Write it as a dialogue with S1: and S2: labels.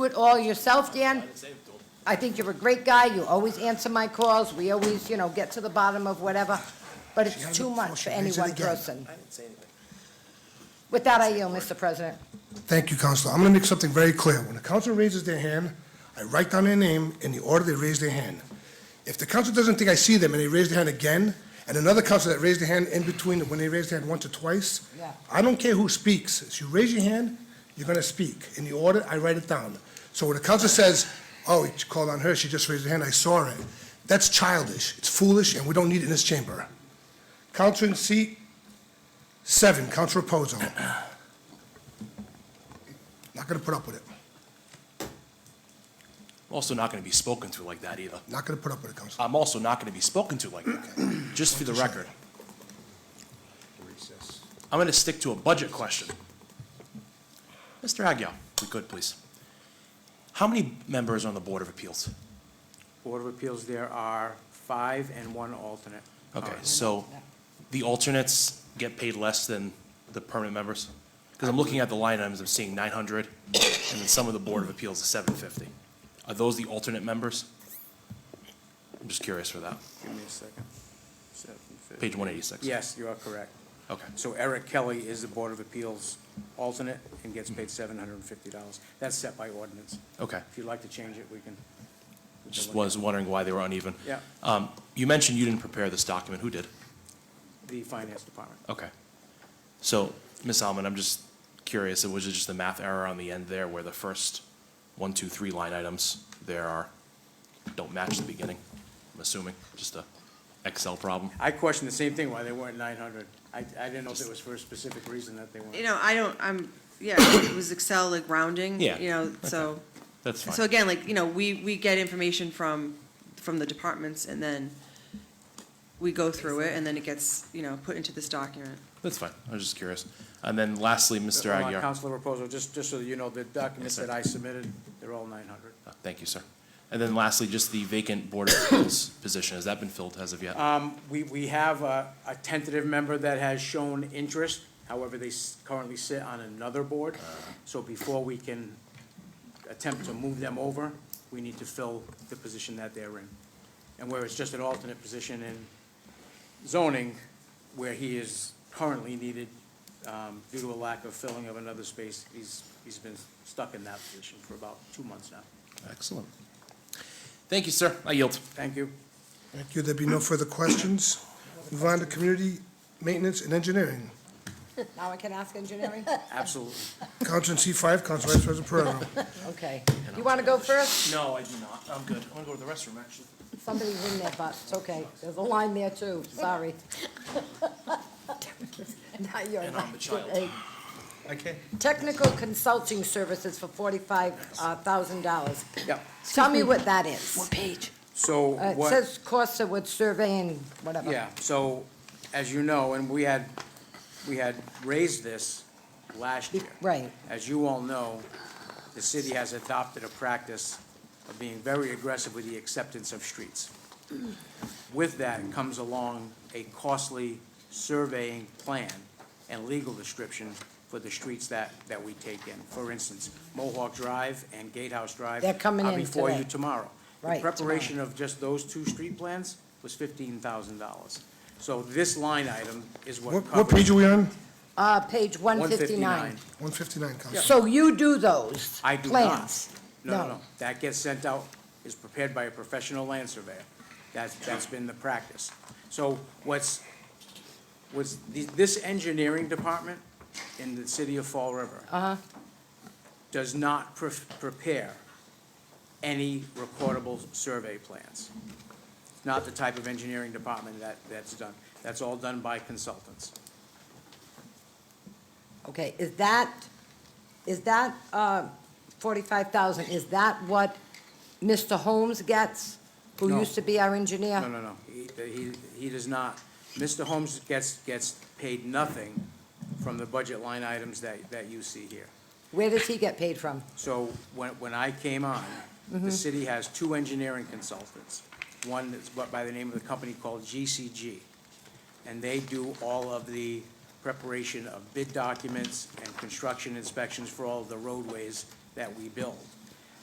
S1: do it all yourself, Dan.
S2: I'd say to him,
S1: I think you're a great guy. You always answer my calls. We always, you know, get to the bottom of whatever. But it's
S3: has
S1: too
S3: it before
S1: much
S3: she
S1: for any
S3: reads it
S1: one
S3: again.
S1: person.
S2: I didn't say anything.
S1: With that, I yield, Mr. President.
S3: Thank you, Counselor. I'm going to make something very clear. When the council raises their hand, I write down their name in the order they raise their hand. If the council doesn't think I see them and they raise their hand again, and another council that raised their hand in between, when they raised their hand once or twice,
S1: Yeah.
S3: I don't care who speaks. If you raise your hand, you're going to speak. In the order, I write it down. So when the council says, oh, he called on her, she just raised her hand, I saw it, that's childish, it's foolish, and we don't need it in this chamber. Council in seat seven, Council Reposo. Not going to put up with it.
S2: I'm also not going to be spoken to like that either.
S3: Not going to put up with it, Council.
S2: I'm also not going to be spoken to like that, just for the record. I'm going to stick to a budget question. Mr. Aguirre, if we could, please. How many members are on the Board of Appeals?
S4: Board of Appeals, there are five and one alternate.
S2: Okay,
S4: Uh,
S2: so the alternates get paid less than the permanent members? Because I'm looking at the line items, I'm seeing nine hundred, and then some of the Board of Appeals is seven fifty. Are those the alternate members? I'm just curious for that.
S4: Give me a second. Seven fifty.
S2: Page one eighty-six.
S4: Yes, you are correct.
S2: Okay.
S4: So Eric Kelly is the Board of Appeals alternate and gets paid seven hundred and fifty dollars. That's set by ordinance.
S2: Mm-hmm. Okay.
S4: If you'd like to change it, we can. we can
S2: Just
S4: look at
S2: was wondering why they were uneven.
S4: Yeah.
S2: Um, you mentioned you didn't prepare this document. Who did?
S4: The Finance Department.
S2: Okay. So, Ms. Alman, I'm just curious, was it just a math error on the end there where the first one, two, three line items there are, don't match the beginning? I'm assuming, just a Excel problem?
S4: I questioned the same thing, why they weren't nine hundred. I, I didn't know if it was for a specific reason that they
S5: You
S4: weren't.
S5: know, I don't, I'm, yeah, it was Excel like rounding,
S2: Yeah,
S5: you know, so.
S2: That's
S5: So
S2: fine.
S5: again, like, you know, we, we get information from, from the departments and then we go through it and then it gets, you know, put into this document.
S2: That's fine. I was just curious. And then lastly, Mr.
S4: Hold on,
S2: Aguirre.
S4: Counselor Reposo, just, just so you know, the documents
S2: sir.
S4: that I submitted, they're all nine hundred.
S2: Uh, Thank you, sir. And then lastly, just the vacant Board of Appeals position. Has that been filled as of yet?
S4: Um, we, we have a, a tentative member that has shown interest, however, they s- currently sit on another board. So before we can attempt to move them over, we need to fill the position that they're in. And where it's just an alternate position in zoning, where he is currently needed, um, due to a lack of filling of another space, he's, he's been stuck in that position for about two months now.
S2: Excellent. Thank you, sir. I yield.
S4: Thank you.
S3: Thank you. There be no further questions. Move on to Community Maintenance and Engineering.
S1: Now I can ask engineering?
S4: Absolutely.
S3: Council in seat five, Council Vice President Pereira.
S1: Okay. You want to go first?
S2: No, I do not. I'm good. I'm gonna go to the restroom, actually.
S1: Somebody's in there, but it's okay. There's a line there too. Sorry. Not your
S2: And I'm the
S1: line.
S2: child.
S3: Okay.
S1: Technical consulting services for forty-five uh, thousand dollars.
S4: Yep.
S1: Tell me what that is.
S5: page?
S4: So
S1: Uh, It
S4: what?
S1: says Corsa would survey and whatever.
S4: Yeah, so, as you know, and we had, we had raised this last year.
S1: Right.
S4: As you all know, the city has adopted a practice of being very aggressive with the acceptance of streets. With that comes along a costly surveying plan and legal description for the streets that, that we take in. For instance, Mohawk Drive and Gatehouse Drive.
S1: They're coming
S4: are
S1: in
S4: Before you
S1: today.
S4: tomorrow.
S1: Right,
S4: The preparation of just those two street plans was fifteen thousand dollars. So this line item is what
S3: What,
S4: covers.
S3: what page are we on?
S1: Uh, page one
S4: 159.
S1: fifty-nine.
S3: 159, Council.
S1: So you do those?
S4: I do not.
S1: plans?
S4: No, no, no. That gets sent out, is prepared by a professional land surveyor. That's, that's been the practice. So what's, what's, the- this engineering department in the city of Fall River
S1: Uh-huh.
S4: does not pre- prepare any recordable survey plans. It's Not the type of engineering department that, that's done. That's all done by consultants.
S1: Okay, is that, is that, uh, forty-five thousand, is that what Mr. Holmes gets? Who
S4: No.
S1: used to be our engineer?
S4: No, no, no, he, he, he does not. Mr. Holmes gets, gets paid nothing from the budget line items that, that you see here.
S1: Where does he get paid from?
S4: So when, when I came on, the city has two engineering consultants. One is bu- by the name of the company called GCG. And they do all of the preparation of bid documents and construction inspections for all of the roadways that we build.